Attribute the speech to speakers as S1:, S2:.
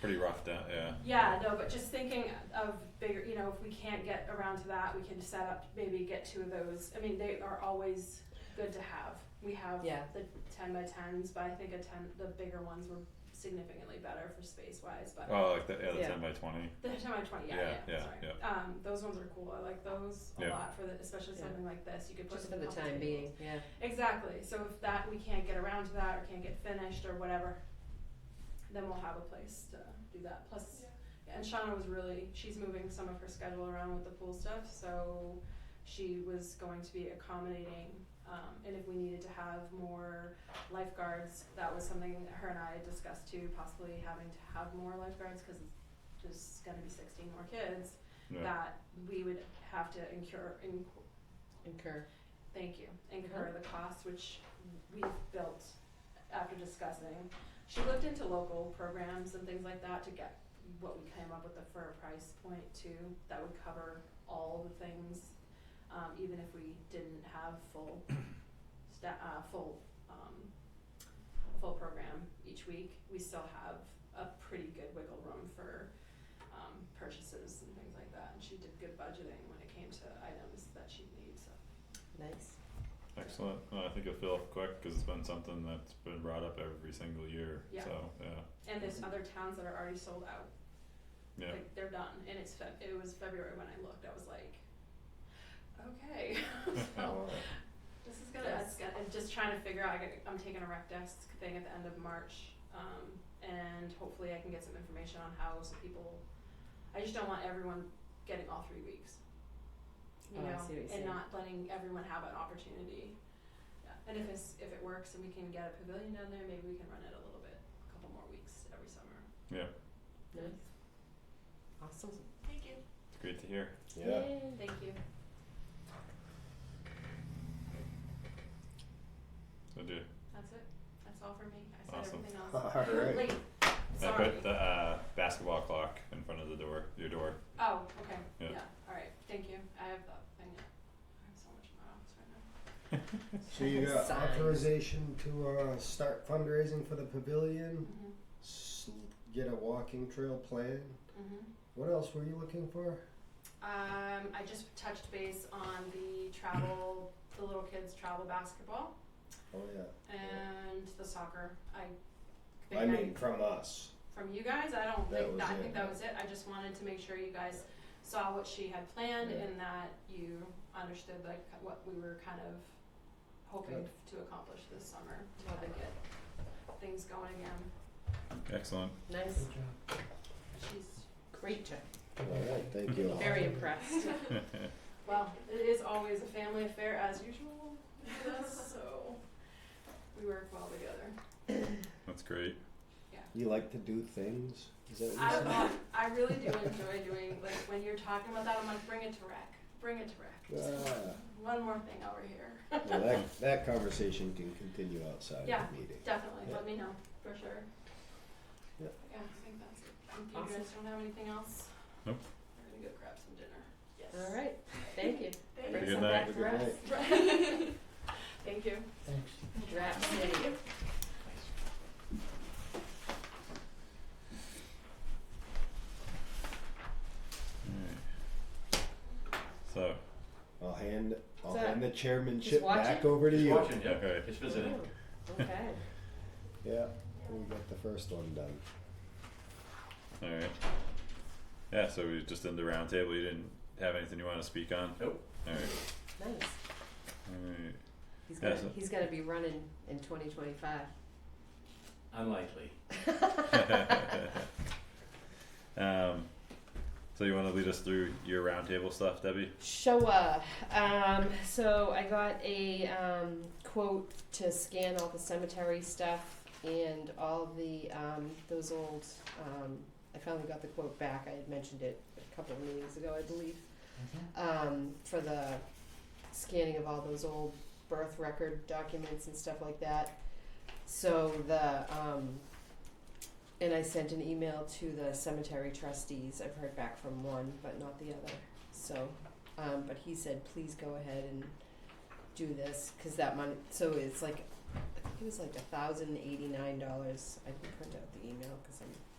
S1: Pretty roughed out, yeah.
S2: Yeah, no, but just thinking of bigger, you know, if we can't get around to that, we can set up, maybe get two of those. I mean, they are always good to have. We have
S3: Yeah.
S2: the ten by tens, but I think a ten, the bigger ones were significantly better for space wise, but
S1: Oh, like the, yeah, the
S3: Yeah.
S1: 10 by 20.
S2: the ten by twenty, yeah,
S1: Yeah,
S2: yeah,
S1: yeah,
S2: sorry.
S1: yeah.
S2: Um, those ones are cool. I like those a
S1: Yeah.
S2: lot for the, especially
S3: Yeah.
S2: something like this. You could put
S3: Just for
S2: them
S3: the
S2: on the table.
S3: time being, yeah.
S2: Exactly. So if that we can't get around to that or can't get finished or whatever, then we'll have a place to do that. Plus, and Shauna was really she's moving some of her schedule around with the pool stuff, so she was going to be accommodating. Um, and if we needed to have more lifeguards, that was something that her and I had discussed too, possibly having to have more lifeguards because there's going to be 16 more kids.
S1: Yeah.
S2: That we would have to incur, in,
S3: Incur.
S2: Thank you. Incur the costs which we built after discussing. She looked into local programs and things like that to get what we came up with the fair price point too, that would cover all the things. Um, even if we didn't have full sta- uh, full, um, full program each week, we still have a pretty good wiggle room for, um, purchases and things like that. And she did good budgeting when it came to items that she needs, so.
S3: Nice.
S1: Excellent. Well, I think it'll fill up quick because it's been something that's been brought up every single year.
S2: Yeah.
S1: So, yeah.
S2: And
S3: Mm-hmm.
S2: there's other towns that are already sold out.
S1: Yeah.
S2: Like they're done. And it's Feb- it was February when I looked. I was like, okay. so this is gonna, it's gonna I'm just trying to figure out. I got, I'm taking a rec desk thing at the end of March, um, and hopefully I can get some information on how some people. I just don't want everyone getting all three weeks. You
S3: Oh, I
S2: know,
S3: see what you're
S2: and
S3: saying.
S2: not letting everyone have an opportunity. Yeah. And if it's if it works and we can get a pavilion down there, maybe we can run it a little bit, a couple more weeks every summer.
S1: Yeah.
S3: Nice. Awesome.
S2: Thank you.
S1: It's great to hear.
S3: Yay.
S2: Thank you.
S1: So, do
S2: That's it. That's all for me. I said
S1: Awesome.
S2: everything else.
S4: Alright.
S2: Wait,
S1: I
S2: Sorry.
S1: put the uh, basketball clock in front of the door, your door.
S2: Oh, okay.
S1: Yeah.
S2: Yeah. All right. Thank you. I have that thing. I have so much in my office right now.
S4: So you got
S3: Signs.
S4: authorization to uh, start fundraising for the pavilion,
S2: Mhm.
S4: s- get a walking trail plan.
S2: Mhm.
S4: What else were you looking for?
S2: Um, I just touched base on the travel, the little kids travel basketball
S4: Oh yeah.
S2: and the soccer. I think
S4: I mean, from us.
S2: from you guys, I don't
S4: That
S2: think
S4: was
S2: that, I
S4: it.
S2: think that was it. I just wanted to make sure you guys saw what she had planned
S4: Yeah.
S2: and that you understood like what we were kind of hoping to accomplish this summer to kind of get things going again.
S1: Excellent.
S3: Nice.
S2: She's
S3: Great job.
S4: Alright, thank you.
S3: Very impressed.
S2: well, it is always a family affair as usual. with us, so we work well together.
S1: That's great.
S4: You like to do things? Is that
S2: I,
S4: what you
S2: uh, I really do enjoy doing like when you're talking about that. I'm like, bring it to rec, bring it to rec.
S4: said?
S2: Just
S4: Ah,
S2: one more thing over here.
S4: well, that, that conversation can continue outside
S2: Yeah.
S4: the meeting.
S2: Definitely,
S4: Yeah.
S2: let me know, for sure.
S4: Yeah.
S2: Yeah, I think that's it. If
S3: Awesome.
S2: you guys don't have anything else?
S1: Nope.
S2: We're gonna go grab some dinner. Yes.
S3: All right. Thank you.
S2: Thank
S3: Bring
S1: you.
S3: some
S1: Good
S3: back
S4: night.
S3: for us.
S2: you. Thank you.
S3: Drop City.
S1: Alright. So,
S4: I'll hand I'll
S3: What's
S4: hand the
S3: Just
S4: chairmanship
S3: watch
S4: back
S3: it?
S4: over to
S5: Just
S4: you.
S5: watching, yeah.
S1: Okay.
S5: Just visiting.
S3: Ooh, Oh, Okay.
S4: Yeah, we got the first one done.
S1: alright. Yeah, so we just in the round table. You didn't have anything you want to speak on?
S5: Nope.
S1: Alright.
S3: Nice.
S1: Alright.
S3: He's
S1: Yeah,
S3: gonna
S1: so-
S3: he's gonna be running in 2025.
S5: Unlikely.
S1: um, so you want to lead us through your roundtable stuff, Debbie?
S3: Showa. Um, so I got a um, quote to scan all the cemetery stuff and all the um, those old. Um, I finally got the quote back. I had mentioned it a couple of meetings ago, I believe, um, for the scanning of all those old birth record documents and stuff like that. So the um, and I sent an email to the cemetery trustees. I've heard back from one, but not the other. So um, but he said, please go ahead and do this, cause that money, so it's like, I think it was like a thousand eighty-nine dollars, I can print out the email, cause I'm